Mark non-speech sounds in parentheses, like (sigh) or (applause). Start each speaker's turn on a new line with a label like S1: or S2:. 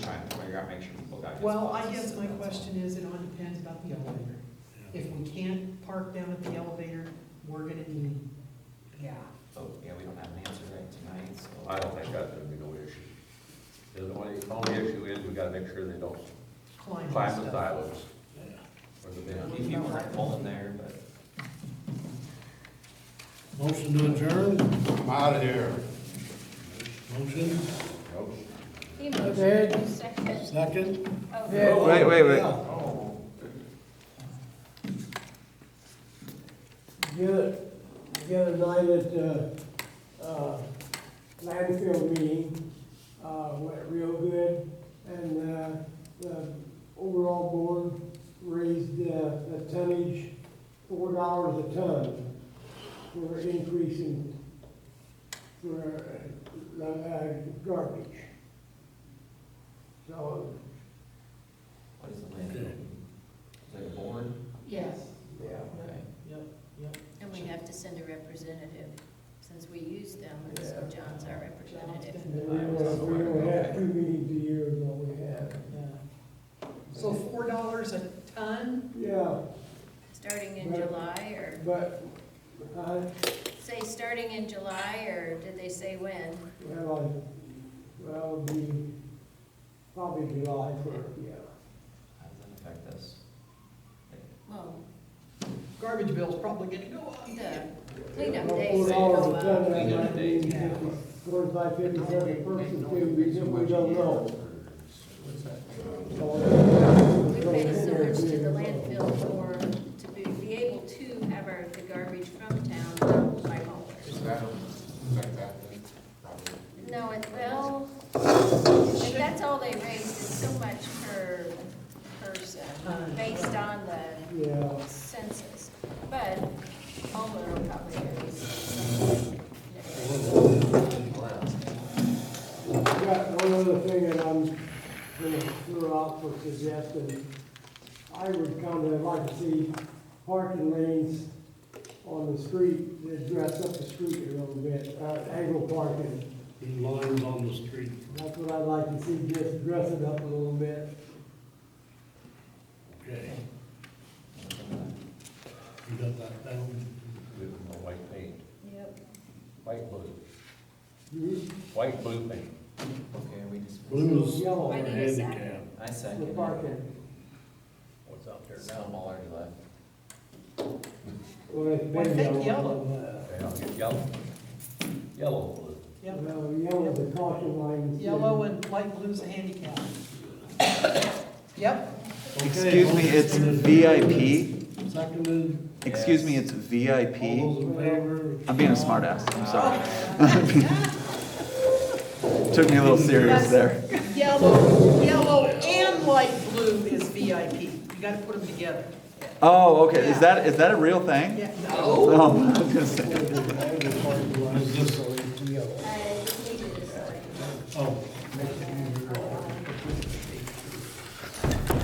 S1: figure out, make sure people got this.
S2: Well, I
S1: policy,
S2: guess my
S1: that's all.
S2: question is, it all depends about the elevator. If we can't park down at the elevator, we're gonna need,
S3: Yeah.
S1: Oh, yeah, we don't have an answer right tonight, so.
S4: I don't think that's gonna be no issue. The only, only issue is we gotta make sure they don't
S2: climb and
S4: climb the
S2: stuff.
S4: silos
S5: uh,
S4: or the
S1: If
S4: bend.
S1: you weren't pulling there, but.
S5: Motion to adjourn,
S6: I'm out of here.
S5: motion,
S3: He moved, you seconded.
S5: second,
S3: Oh,
S7: Wait, wait, wait.
S8: Get, get a night at the, uh, landfill meeting, uh, went real good. And, uh, the overall board raised, uh, the tonnage four dollars a ton for increasing for, uh, uh, garbage. So,
S1: What is the land? Is it a board?
S2: Yes.
S8: yeah.
S1: Okay.
S2: Yep, yep.
S3: And we have to send a representative, since we use them, and so John's our representative.
S8: And we don't, we don't have two meetings a year, is all we have.
S2: Yeah. So four dollars a ton?
S8: Yeah.
S3: Starting in July, or,
S8: But, uh,
S3: say, starting in July, or did they say when?
S8: well, I, well, it'd be probably July first, yeah.
S1: How does that affect us?
S3: Well,
S2: Garbage bill's probably gonna go up.
S3: the cleanup
S8: Well,
S3: days.
S8: Four dollars a ton, that
S1: Cleanup
S8: might be
S1: days, yeah.
S8: fifty, forty-five, fifty-seven person, too, we simply don't know.
S3: We
S8: We
S3: pay so much to the landfill for, to be, be able to have our, the garbage from town dumped by haulers.
S6: Is that, is that that then? Probably.
S3: No, it, well, if that's all they raised, it's so much per person, based on the
S8: Yeah,
S3: census. But homeowner will probably raise something.
S8: I got one other thing that I'm gonna throw out for suggestion. I would kinda like to see parking lanes on the street, that dress up the street a little bit, uh, angle parking.
S5: lines on the street.
S8: That's what I'd like to see, just dress it up a little bit.
S5: Okay, you got that down?
S4: Give them a white paint,
S3: Yep.
S4: white blue,
S8: You-
S4: white blue paint.
S1: Okay, we just.
S5: Blue is
S8: Yellow,
S3: I
S5: for
S3: need a
S5: handicap.
S1: I second.
S8: the
S1: it.
S8: parking.
S4: What's out there
S1: There's
S4: now?
S1: some already left.
S8: Well, it's
S2: Well, I
S8: been
S2: think
S8: yellow. Uh,
S4: Okay, I'll get yellow, yellow blue.
S2: Yep.
S8: Well, yellow's a caution line.
S2: Yellow and light blue's a handicap. Yep,
S5: Okay,
S7: Excuse me, it's
S5: motion
S7: VIP?
S5: Seconded,
S7: Excuse me,
S1: Yes.
S7: it's
S5: all
S7: VIP?
S5: those in favor?
S7: I'm being a smartass, I'm sorry. Took me a little
S2: That's-
S7: serious there.
S2: (laughs) yellow, yellow and light blue is VIP. You gotta put them together.
S7: Oh, okay, is that, is that a real thing?
S2: Yeah, no.
S7: Oh, I was gonna say.
S3: Uh,
S5: Oh.